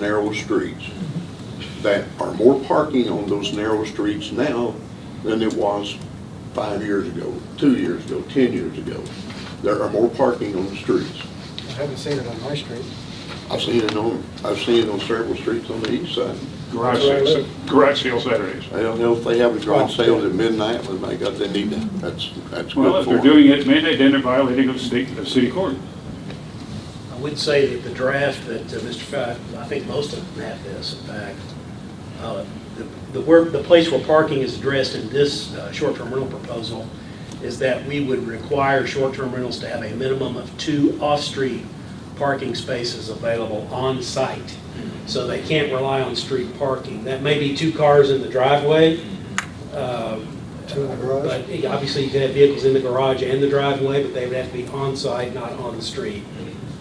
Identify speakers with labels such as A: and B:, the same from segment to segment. A: narrow streets, that are more parking on those narrow streets now than it was five years ago, two years ago, 10 years ago. There are more parking on the streets.
B: I haven't seen it on my street.
A: I've seen it on, I've seen it on several streets on the east side.
C: Garage
B: That's where I
C: sale,
B: live.
C: garage sale Saturdays.
A: I don't know if they have a garage sale at midnight, but my God, they need that. That's, that's
C: Well,
A: good
C: if they're
A: for them.
C: doing it at midnight, then they're violating of state, of city court.
D: I would say that the draft that uh, Mr. Fry, I think most of them have this, in fact. Uh, the- The work, the place where parking is addressed in this uh, short-term rental proposal is that we would require short-term rentals to have a minimum of two off-street parking spaces available on-site. So they can't rely on street parking. That may be two cars in the driveway. um,
B: Two in the garage?
D: But yeah, obviously, you could have vehicles in the garage and the driveway, but they would have to be on-site, not on the street.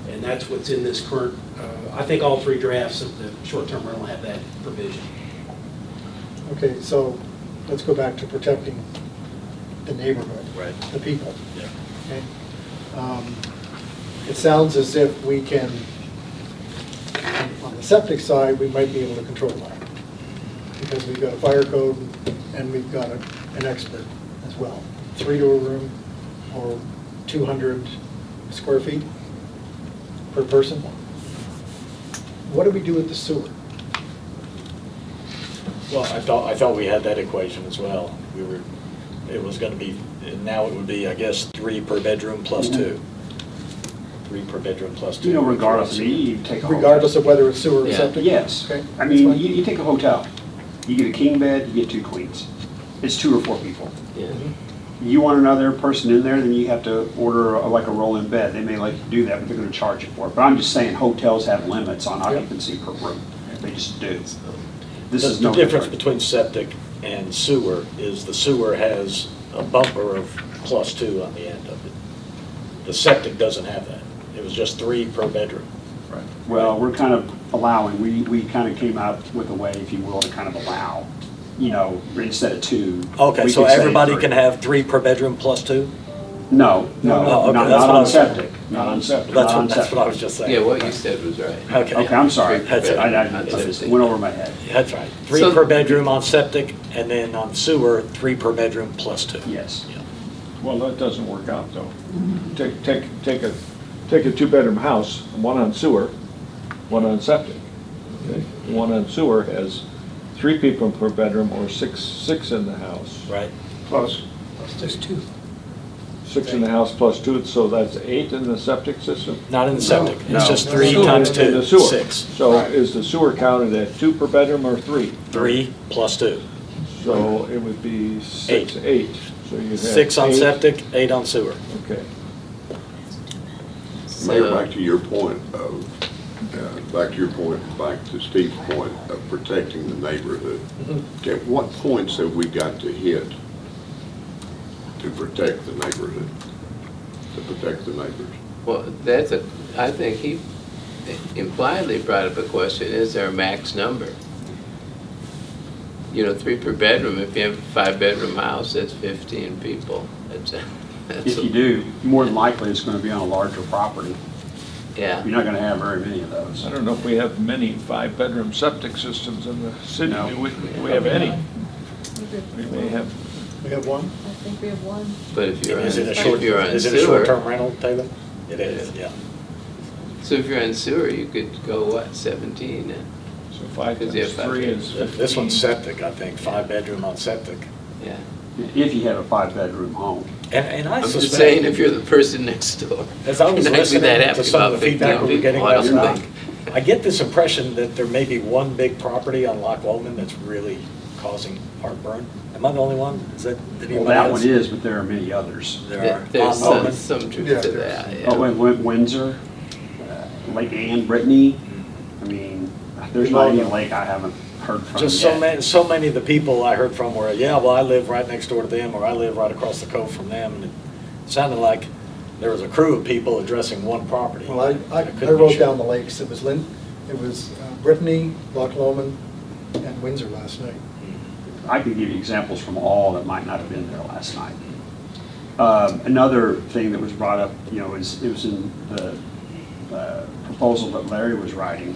D: And that's what's in this current, uh, I think all three drafts of the short-term rental have that provision.
B: Okay, so let's go back to protecting the neighborhood.
D: Right.
B: The people. Okay? Um, It sounds as if we can, on- on the septic side, we might be able to control that. Because we've got a fire code and we've got a- an expert as well. Three-door room or 200 square feet per person. What do we do with the sewer?
E: Well, I thought, I thought we had that equation as well. We were, it was gonna be, now it would be, I guess, three per bedroom plus two. Three per bedroom plus two.
F: Mm-hmm. You know, regardless, I mean, you take a hotel.
B: Regardless of whether it's sewer or
E: Yeah.
B: septic?
F: Yes.
B: Okay,
F: I
B: that's
F: mean,
B: fine.
F: you, you take a hotel, you get a king bed, you get two queens. It's two or four people. You want another person in there, then you have to order a- like a roll-in bed. They may like to do that, but they're gonna charge you for it. But I'm just saying hotels have limits on occupancy per room. They just do. This
E: The-
F: is no
E: The difference
F: different.
E: between septic and sewer is the sewer has a bumper of plus two on the end of it. The septic doesn't have that. It was just three per bedroom.
F: Well, we're kind of allowing, we, we kind of came out with a way, if you will, to kind of allow, you know, instead of two.
E: Okay,
F: we
E: so
F: could say
E: everybody
F: three.
E: can have three per bedroom plus two?
F: No,
E: Oh,
F: no,
E: okay, that's
F: not not
E: what I
F: on
E: was saying.
F: septic, not on septic,
E: That's
F: not
E: what,
F: on
E: that's what I was
F: septic.
E: just saying.
G: Yeah, what you said was right.
E: Okay.
F: Uh, Okay, I'm sorry.
E: That's it.
F: I, I- I
G: That's
F: just
G: it.
F: went over my head.
E: That's right. Three
G: So-
E: per bedroom on septic, and then on sewer, three per bedroom plus two.
F: Yes.
E: Yeah.
H: Well, that doesn't work out, though. Take, take, take a, take a two-bedroom house, one on sewer, one on septic. okay? One on sewer has three people per bedroom or six, six in the house.
E: Right?
C: Plus,
D: There's two.
H: Six in the house plus two, so that's eight in the septic system?
E: Not in the septic. It's just
H: No.
E: three
H: Sewer.
E: times
H: In
E: two,
H: the sewer.
E: six.
H: So is the sewer counted at two per bedroom or three?
E: Three plus two.
H: So it would be six,
E: Eight.
H: eight. So you'd have
E: Six on
H: eight.
E: septic, eight on sewer.
H: Okay.
A: Mayor,
G: So,
A: back to your point of, uh, back to your point, back to Steve's point of protecting the neighborhood. At what points have we got to hit to protect the neighborhood, to protect the neighbors?
G: well, that's a, I think he impliedly brought up a question, is there a max number? You know, three per bedroom, if you have a five-bedroom house, that's fifteen people. That's a- that's
F: If
G: a-
F: you do, more than likely, it's gonna be on a larger property.
G: Yeah.
F: You're not gonna have very many of those.
H: I don't know if we have many five-bedroom septic systems in the city.
F: No.
H: Do we, we have any? We may have
B: We have one?
I: I think we have one.
G: But if you're on,
E: Is it a
I: Right.
E: short,
G: if you're on
E: is it a
G: sewer,
E: short-term rental, David? It is, yeah.
G: so if you're on sewer, you could go, what, seventeen? then?
H: So five
G: Because you
H: times
G: have five
H: three is fifteen.
E: This one's septic, I think, five bedroom on septic.
G: Yeah.
F: If you have a five-bedroom home.
E: And, and I
G: I'm
E: suspect.
G: just saying, if you're the person next door.
E: As I was
G: you're not gonna be
E: listening
G: that happy
E: to some
G: about
E: of the feedback
G: 15
E: we were getting
G: people, I
E: last
G: don't
E: night,
G: think.
E: I get this impression that there may be one big property on Loch Lomond that's really causing heartburn. Am I the only one? Is that, did
F: Well,
E: anybody else?
F: that one is, but there are many others.
E: There are.
G: There's
E: On
G: some,
E: Lomond.
G: some
B: Yeah,
G: truth to that, yeah.
F: Oh, and Win- Windsor, uh, Lake Anne, Brittany,
E: Mm.
F: I mean, there's not any lake I haven't heard from
E: Just so
F: yet.
E: many, so many of the people I heard from were, yeah, well, I live right next door to them, or I live right across the cove from them. and It Sounded like there was a crew of people addressing one property.
B: Well, I- I,
E: couldn't
B: I
E: be
B: wrote
E: sure.
B: down the lakes. It was Lynn, it was uh, Brittany, Loch Lomond, and Windsor last night.
F: I could give you examples from all that might not have been there last night. Um, Another thing that was brought up, you know, is, it was in the uh, proposal that Larry was writing,